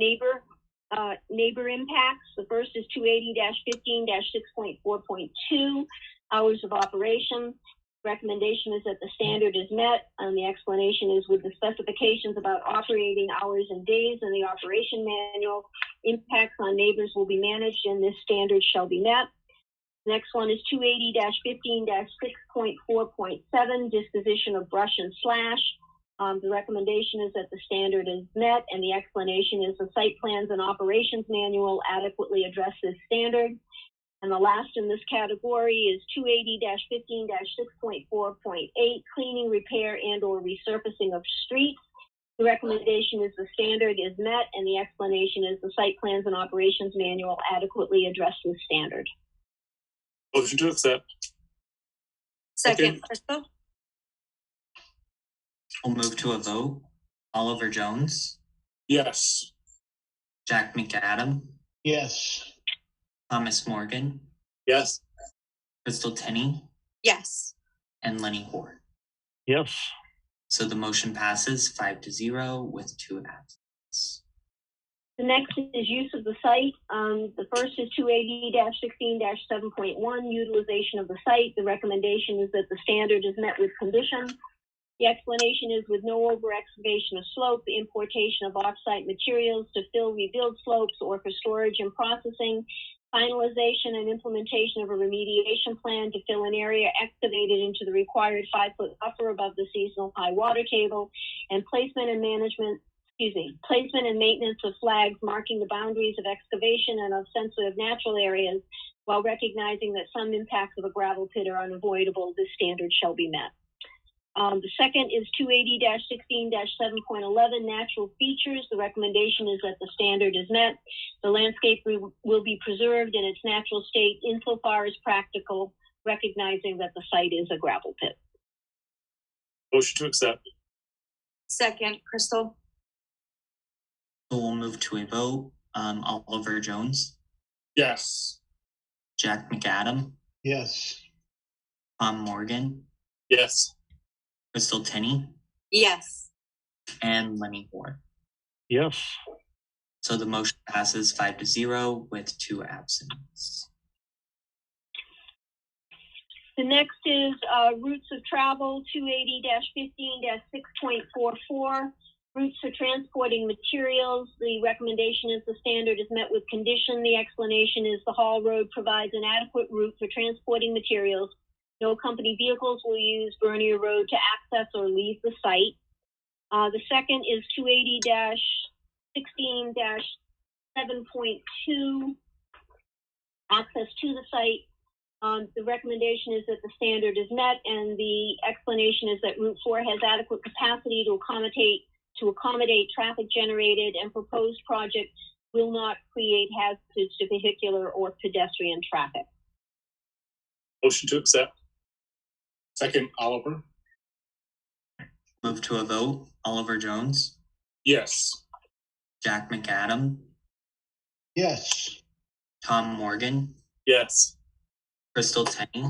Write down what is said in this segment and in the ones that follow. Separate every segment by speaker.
Speaker 1: neighbor, uh, neighbor impacts. The first is two eighty fifteen six point four point two, hours of operation. Recommendation is that the standard is met, and the explanation is with the specifications about operating hours and days in the operation manual. Impacts on neighbors will be managed, and this standard shall be met. Next one is two eighty fifteen six point four point seven, disposition of brush and slash. Um, the recommendation is that the standard is met and the explanation is the site plans and operations manual adequately address this standard. And the last in this category is two eighty fifteen six point four point eight, cleaning, repair and or resurfacing of streets. The recommendation is the standard is met and the explanation is the site plans and operations manual adequately address this standard.
Speaker 2: Motion to accept.
Speaker 3: Second,
Speaker 2: Second.
Speaker 3: Crystal?
Speaker 4: We'll move to a vote. Oliver Jones,
Speaker 2: Yes.
Speaker 4: Jack McAdam,
Speaker 5: yes,
Speaker 4: Thomas Morgan,
Speaker 2: Yes.
Speaker 4: Crystal Tenney,
Speaker 3: Yes.
Speaker 4: and Lenny Hoare.
Speaker 6: yes,
Speaker 4: So the motion passes five to zero with two absences.
Speaker 1: The next is use of the site. Um, the first is two eighty sixteen seven point one, utilization of the site. The recommendation is that the standard is met with condition. The explanation is with no over excavation of slope, importation of off-site materials to fill rebuild slopes or for storage and processing, finalization and implementation of a remediation plan to fill an area excavated into the required five-foot buffer above the seasonal high water table, and placement and management excuse me, placement and maintenance of flags marking the boundaries of excavation and of sensitive natural areas while recognizing that some impacts of a gravel pit are unavoidable, this standard shall be met. Um, the second is 280-16-7.11 natural features. The recommendation is that the standard is met. The landscape re- will be preserved in its natural state insofar as practical, recognizing that the site is a gravel pit.
Speaker 2: Motion to accept.
Speaker 3: Second, Crystal?
Speaker 4: So we'll move to a vote. Um, Oliver Jones,
Speaker 2: Yes.
Speaker 4: Jack McAdam,
Speaker 5: yes,
Speaker 4: Tom Morgan,
Speaker 2: Yes.
Speaker 4: Crystal Tenney,
Speaker 3: Yes.
Speaker 4: and Lenny Hoare.
Speaker 6: yes,
Speaker 4: So the motion passes five to zero with two absences.
Speaker 1: The next is uh, routes of travel, two eighty fifteen six point four four. Routes for transporting materials, the recommendation is the standard is met with condition. The explanation is the Hall Road provides an adequate route for transporting materials. No company vehicles will use Bernier Road to access or leave the site. Uh, The second is two eighty sixteen seven point two. Access to the site, um, the recommendation is that the standard is met and the explanation is that Route Four has adequate capacity to accommodate, to accommodate traffic generated and proposed project will not create hazards to vehicular or pedestrian traffic.
Speaker 2: Motion to accept. Second, Oliver.
Speaker 4: Move to a vote. Oliver Jones,
Speaker 2: Yes.
Speaker 4: Jack McAdam,
Speaker 5: yes,
Speaker 4: Tom Morgan,
Speaker 2: Yes.
Speaker 4: Crystal Tenney,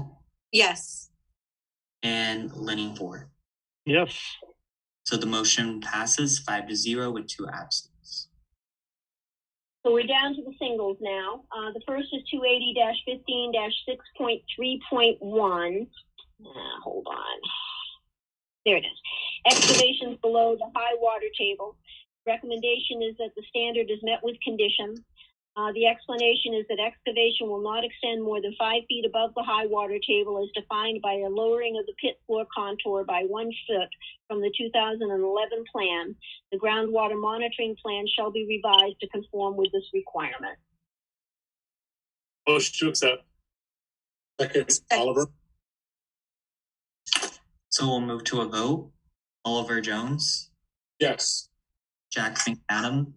Speaker 3: Yes.
Speaker 4: and Lenny Hoare.
Speaker 6: yes,
Speaker 4: So the motion passes five to zero with two absences.
Speaker 1: So we're down to the singles now. Uh, the first is two eighty fifteen six point three point one. Ah, hold on. There it is. Excavations below the high water table. Recommendation is that the standard is met with condition. Uh, the explanation is that excavation will not extend more than five feet above the high water table as defined by a lowering of the pit floor contour by one foot from the two thousand and eleven plan. The groundwater monitoring plan shall be revised to conform with this requirement.
Speaker 2: Motion to accept. Second, Oliver.
Speaker 4: So we'll move to a vote. Oliver Jones,
Speaker 2: Yes.
Speaker 4: Jack McAdam,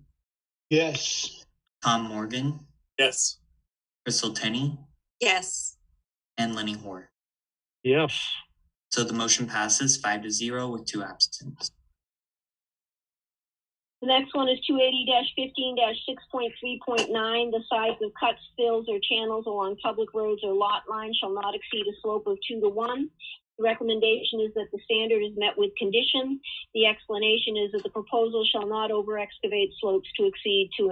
Speaker 5: yes,
Speaker 4: Tom Morgan,
Speaker 2: Yes.
Speaker 4: Crystal Tenney,
Speaker 3: Yes.
Speaker 4: and Lenny Hoare.
Speaker 6: yes,
Speaker 4: So the motion passes five to zero with two absences.
Speaker 1: The next one is two eighty fifteen six point three point nine, the size of cuts, fills, or channels along public roads or lot lines shall not exceed a slope of two to one. The recommendation is that the standard is met with condition. The explanation is that the proposal shall not over excavate slopes to exceed two